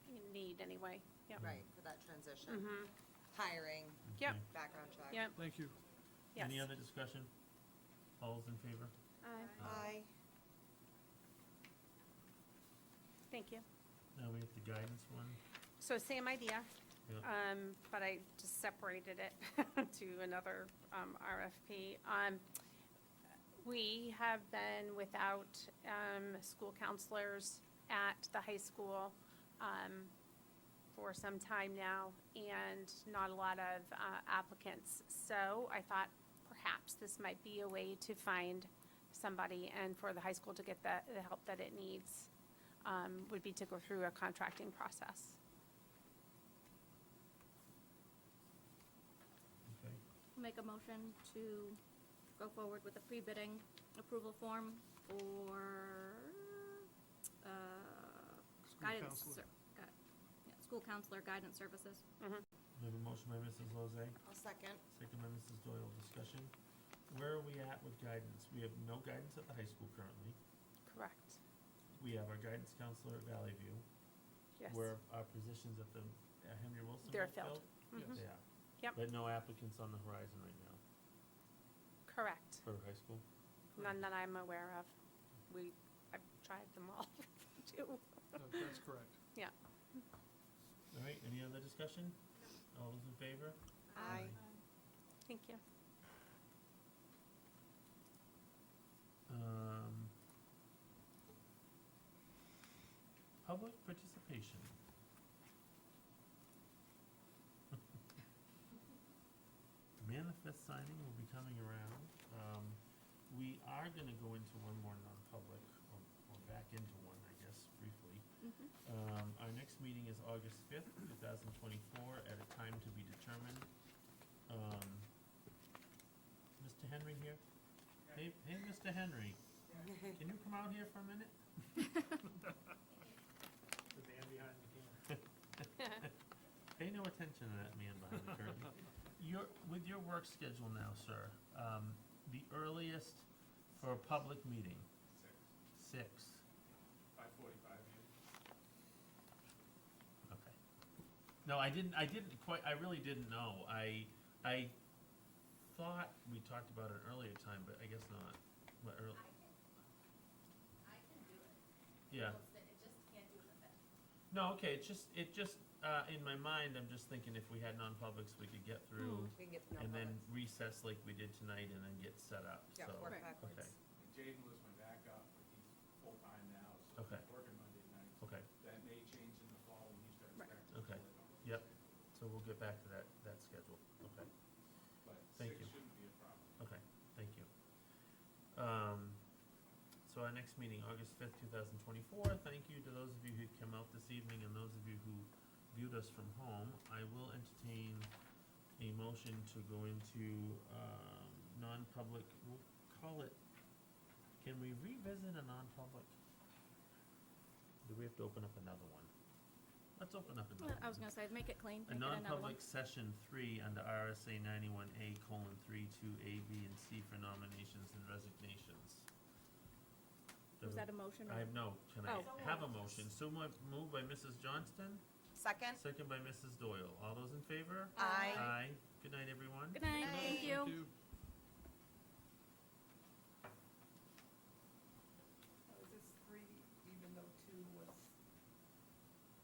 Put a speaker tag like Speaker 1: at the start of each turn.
Speaker 1: anyway. Yep.
Speaker 2: Right, for that transition.
Speaker 1: Mhm.
Speaker 2: Hiring,
Speaker 1: Yep,
Speaker 3: Okay.
Speaker 2: background check.
Speaker 1: yep,
Speaker 4: Thank you.
Speaker 1: yes.
Speaker 3: Any other discussion? All's in favor?
Speaker 1: Aye.
Speaker 2: Aye.
Speaker 1: Thank you.
Speaker 3: Now we have the guidance one.
Speaker 1: So same idea,
Speaker 3: Yeah.
Speaker 1: um, but I just separated it to another, um, RFP. Um, we have been without, um, school counselors at the high school, um, for some time now and not a lot of, uh, applicants. So I thought perhaps this might be a way to find somebody and for the high school to get the, the help that it needs, um, would be to go through a contracting process.
Speaker 3: Okay.
Speaker 5: Make a motion to go forward with the pre-bidding approval form for, uh,
Speaker 4: School
Speaker 5: guidance,
Speaker 4: counselor.
Speaker 5: ser- gui- yeah, school counselor guidance services.
Speaker 3: We have a motion by Mrs. Lozay,
Speaker 2: I'll second.
Speaker 3: second by Mrs. Doyle. Discussion. Where are we at with guidance? We have no guidance at the high school currently.
Speaker 1: Correct,
Speaker 3: We have our guidance counselor at Valley View.
Speaker 1: yes.
Speaker 3: Where our positions at the, at Henry Wilson.
Speaker 1: They're
Speaker 3: were
Speaker 1: filled. Mhm.
Speaker 3: Yeah.
Speaker 1: Yep.
Speaker 3: But no applicants on the horizon right now
Speaker 1: Correct.
Speaker 3: for high school?
Speaker 1: None that I'm aware of. We, I've tried them all, too.
Speaker 4: That- That's correct.
Speaker 3: All right, any other discussion? All those in favor?
Speaker 2: Aye.
Speaker 1: Thank you.
Speaker 3: Um, public participation. Manifest signing will be coming around. Um, we are gonna go into one more non-public, or, or back into one, I guess, briefly.
Speaker 5: Mhm.
Speaker 3: Um, our next meeting is August fifth, two thousand twenty-four, at a time to be determined. Um, Mr. Henry here? Hey, hey, Mr. Henry, can you come out here for a minute?
Speaker 4: The man behind the camera.
Speaker 3: Pay no attention to that man behind the curtain. Your, with your work schedule now, sir, um, the earliest for a public meeting? Six. Six,
Speaker 6: Five forty-five,
Speaker 3: okay. No, I didn't, I didn't quite, I really didn't know. I, I thought we talked about it earlier time, but I guess not. What, early,
Speaker 7: I can do it.
Speaker 3: yeah.
Speaker 7: It's that It just can't do the fifth.
Speaker 3: No, okay, it's just, it just, uh, in my mind, I'm just thinking if we had non-publics, we could get through
Speaker 2: We can get to
Speaker 3: and then
Speaker 2: non-public. recess
Speaker 3: recess like we did tonight and then get set up, so.
Speaker 2: Yeah, work
Speaker 5: Right.
Speaker 2: backwards.
Speaker 6: and Jaden was my backup, but he's full-time now, so
Speaker 3: Okay.
Speaker 6: he's working Monday nights.
Speaker 3: Okay,
Speaker 6: That may change in the fall when he starts
Speaker 1: Right.
Speaker 6: back. to
Speaker 3: Okay.
Speaker 6: full-time.
Speaker 3: Yep. so we'll get back to that, that schedule, okay,
Speaker 6: But
Speaker 3: Thank you.
Speaker 6: six shouldn't be a problem.
Speaker 3: okay, thank you. Um, so our next meeting, August fifth, two thousand twenty-four, thank you to those of you who came out this evening and those of you who viewed us from home. I will entertain a motion to go into, um, non-public, we'll call it, can we revisit a non-public? Do we have to open up another one? Let's open up another
Speaker 5: Uh,
Speaker 3: one.
Speaker 5: I was gonna say, make it clean,
Speaker 3: A
Speaker 5: make it another
Speaker 3: non-public
Speaker 5: one.
Speaker 3: session three under RSA ninety-one A colon three, two, A, B, and C for nominations and resignations.
Speaker 5: Was
Speaker 3: Do-
Speaker 5: that a motion? or-
Speaker 3: I have no, can I
Speaker 5: Oh.
Speaker 3: have a motion? So moved, moved by Mrs. Johnston,
Speaker 2: Second?
Speaker 3: second by Mrs. Doyle. All those in favor?
Speaker 2: Aye.
Speaker 3: Aye. Good night, everyone.
Speaker 5: Good night,
Speaker 2: Good
Speaker 5: thank
Speaker 2: night.
Speaker 5: you.
Speaker 4: Thank you.